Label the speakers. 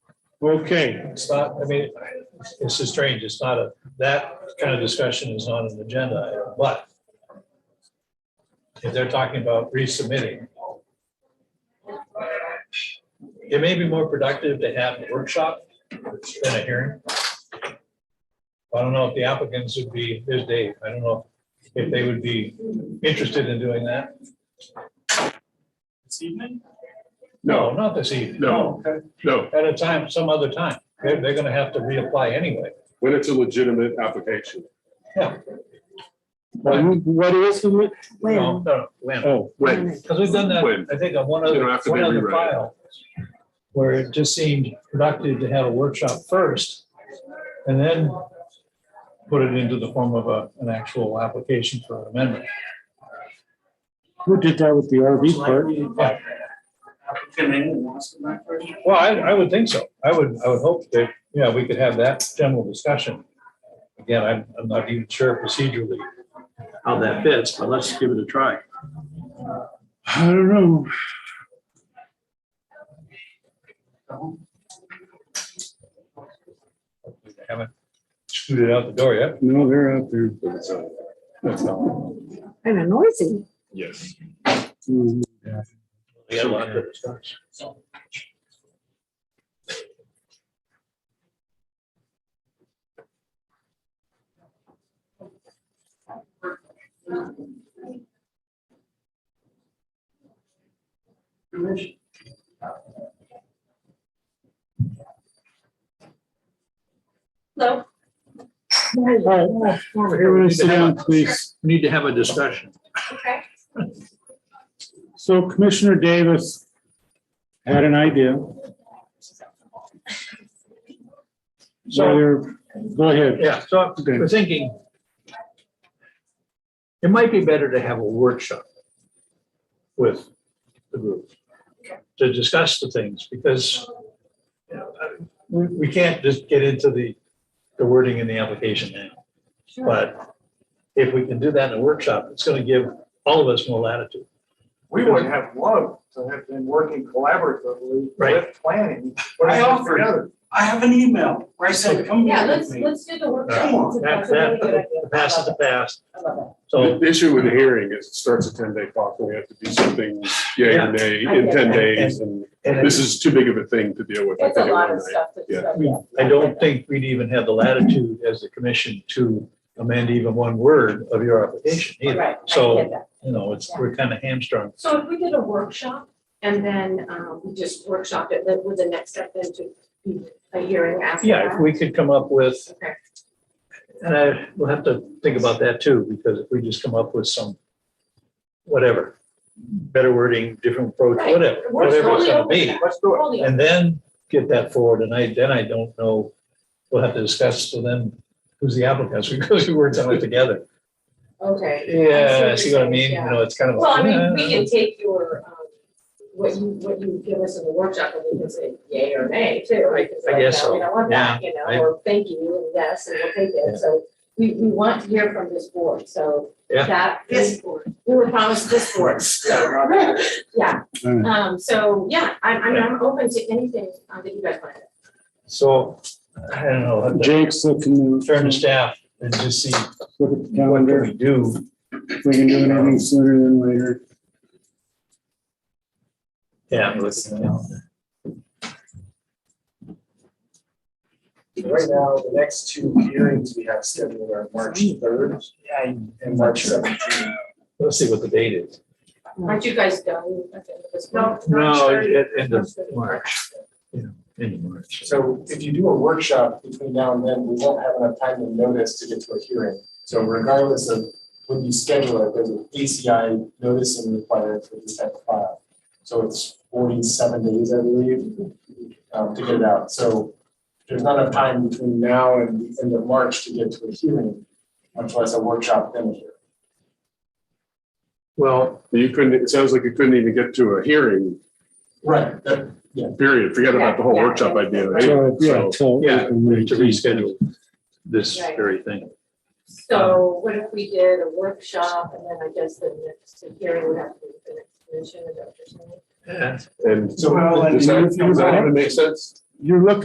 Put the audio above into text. Speaker 1: Okay,
Speaker 2: It's not, I mean, it's just strange. It's not a, that kind of discussion is not an agenda item, but if they're talking about resubmitting, it may be more productive to have a workshop than a hearing. I don't know if the applicants would be, there's Dave, I don't know if they would be interested in doing that.
Speaker 3: This evening?
Speaker 1: no,
Speaker 2: Not this evening. Oh,
Speaker 1: No.
Speaker 2: Okay.
Speaker 1: no,
Speaker 2: At a time, some other time. They're, they're gonna have to reapply anyway.
Speaker 1: when it's a legitimate application.
Speaker 2: Yeah.
Speaker 4: What is the?
Speaker 2: No,
Speaker 5: When?
Speaker 2: no, when.
Speaker 4: Uh,
Speaker 1: Oh, when,
Speaker 2: Because we've done that,
Speaker 1: When?
Speaker 2: I think, on one
Speaker 1: You
Speaker 2: other,
Speaker 1: don't have to
Speaker 2: one
Speaker 1: be
Speaker 2: other
Speaker 1: rewrite it.
Speaker 2: file, where it just seemed productive to have a workshop first, and then put it into the form of a, an actual application for an amendment.
Speaker 4: Who did that with the RV park?
Speaker 2: Yeah.
Speaker 3: Applicant anyone wants to back first?
Speaker 2: Well, I, I would think so. I would, I would hope that, yeah, we could have that general discussion. Again, I'm, I'm not even sure procedurally.
Speaker 3: How that fits, but let's give it a try.
Speaker 4: I don't know.
Speaker 2: We Haven't scooted out the door yet.
Speaker 4: No, they're out there.
Speaker 1: but it's not- That's not,
Speaker 5: Kind of noisy.
Speaker 1: yes.
Speaker 4: Mm,
Speaker 2: We had a lot to discuss.
Speaker 6: Hello,
Speaker 4: All right, Everyone sit down, please.
Speaker 3: We Need to have a discussion.
Speaker 6: okay.
Speaker 4: So Commissioner Davis had an idea.
Speaker 2: So,
Speaker 4: Whether- Go ahead.
Speaker 2: yeah, so I'm
Speaker 4: Okay.
Speaker 2: we're thinking it might be better to have a workshop with the group to discuss the things because you know, I- we, we can't just get into the, the wording in the application now. But if we can do that in a workshop, it's going to give all of us more latitude.
Speaker 7: we would have loved to have been working collaboratively
Speaker 2: Right.
Speaker 7: with planning. putting
Speaker 3: I
Speaker 7: this
Speaker 3: offered.
Speaker 7: together.
Speaker 3: I have an email where I said, come
Speaker 6: Yeah,
Speaker 3: here
Speaker 6: let's,
Speaker 3: with me.
Speaker 6: let's do the
Speaker 3: Come
Speaker 6: workshop.
Speaker 3: on.
Speaker 6: It's a-
Speaker 2: That,
Speaker 6: it's a really
Speaker 2: that,
Speaker 6: good idea.
Speaker 2: the past is the past.
Speaker 6: I love it.
Speaker 2: So
Speaker 1: The issue with the hearing is it starts a ten day clock, and we have to do something yay or nay in ten days, and
Speaker 2: and
Speaker 1: this is too big of a thing to deal with. I
Speaker 6: It's a
Speaker 1: think, in
Speaker 6: lot
Speaker 1: one
Speaker 6: of
Speaker 1: night.
Speaker 6: stuff. to
Speaker 1: Yeah.
Speaker 6: discuss,
Speaker 2: we-
Speaker 6: yeah.
Speaker 2: I don't think we'd even have the latitude as the commission to amend even one word of your application either.
Speaker 6: Right, I
Speaker 2: So,
Speaker 6: get that.
Speaker 2: you know, it's, we're kind of hamstrung.
Speaker 6: So if we did a workshop and then, um, we just workshopped it, that would the next step then to be a hearing after
Speaker 2: Yeah, if
Speaker 6: that?
Speaker 2: we could come up with,
Speaker 6: Okay,
Speaker 2: and I, we'll have to think about that too, because if we just come up with some, whatever, better wording, different approach,
Speaker 6: Right.
Speaker 2: whatever,
Speaker 6: We're
Speaker 2: whatever it's
Speaker 6: totally
Speaker 2: gonna
Speaker 6: open to
Speaker 2: be.
Speaker 7: Let's do it.
Speaker 6: Totally.
Speaker 2: And then get that forward, and I, then I don't know, we'll have to discuss, so then, who's the applicants, because we worked on it together.
Speaker 6: Okay.
Speaker 2: Yeah,
Speaker 6: I
Speaker 2: see what I
Speaker 6: you're
Speaker 2: mean?
Speaker 6: saying,
Speaker 2: You
Speaker 6: yeah.
Speaker 2: know, it's kind of
Speaker 6: Well, I
Speaker 2: like.
Speaker 6: mean, we
Speaker 2: eh.
Speaker 6: can take your, um, what you, what you give us in the workshop and we can say yay or nay too.
Speaker 2: I-
Speaker 6: because
Speaker 2: I
Speaker 6: right
Speaker 2: guess
Speaker 6: now We
Speaker 2: so.
Speaker 6: don't want that, you know,
Speaker 2: I-
Speaker 6: or thank you, and yes, and we'll take
Speaker 2: Yeah.
Speaker 6: it. So we, we want to hear from this board, so
Speaker 2: Yeah.
Speaker 6: that is,
Speaker 3: board.
Speaker 6: we were promised this board, so, yeah.
Speaker 4: All right.
Speaker 6: Um, so, yeah, I'm, I'm, I'm open to anything uh, that you guys want.
Speaker 2: So, I don't know, I'll have to
Speaker 4: Jake's looking. to-
Speaker 2: turn to staff and just see
Speaker 4: Look at the
Speaker 2: what can
Speaker 4: calendar.
Speaker 2: we do.
Speaker 4: If we can do it any sooner than later.
Speaker 2: Yeah, I'm listening.
Speaker 7: Right now, the next two hearings we have scheduled are March third and March seventeenth.
Speaker 2: Let's see what the date is.
Speaker 6: Aren't you guys done? at the end of this month?
Speaker 2: No, at end of March. Yeah, end of March.
Speaker 7: So if you do a workshop between now and then, we won't have enough time to notice to get to a hearing. So regardless of when you schedule it, there's an ACI noticing required for this type of file. So it's forty-seven days, I believe, um, to get it out. So there's not enough time between now and the end of March to get to a hearing, much less a workshop then a hearing.
Speaker 2: Well,
Speaker 1: You couldn't, it sounds like you couldn't even get to a hearing,
Speaker 7: Right, that-
Speaker 1: period, forget about the whole
Speaker 6: Yeah, yeah.
Speaker 1: workshop idea.
Speaker 4: So, yeah,
Speaker 1: So,
Speaker 4: till
Speaker 2: yeah,
Speaker 4: April
Speaker 2: we need to
Speaker 4: 19th.
Speaker 2: reschedule this
Speaker 6: Right.
Speaker 2: very thing.
Speaker 6: So what if we did a workshop and then I guess the next hearing would have to be the next commission, is that what you're saying?
Speaker 2: Yeah.
Speaker 1: And
Speaker 7: Well,
Speaker 1: so,
Speaker 7: and
Speaker 1: does that,
Speaker 7: you-
Speaker 1: does that even make sense?
Speaker 4: You're looking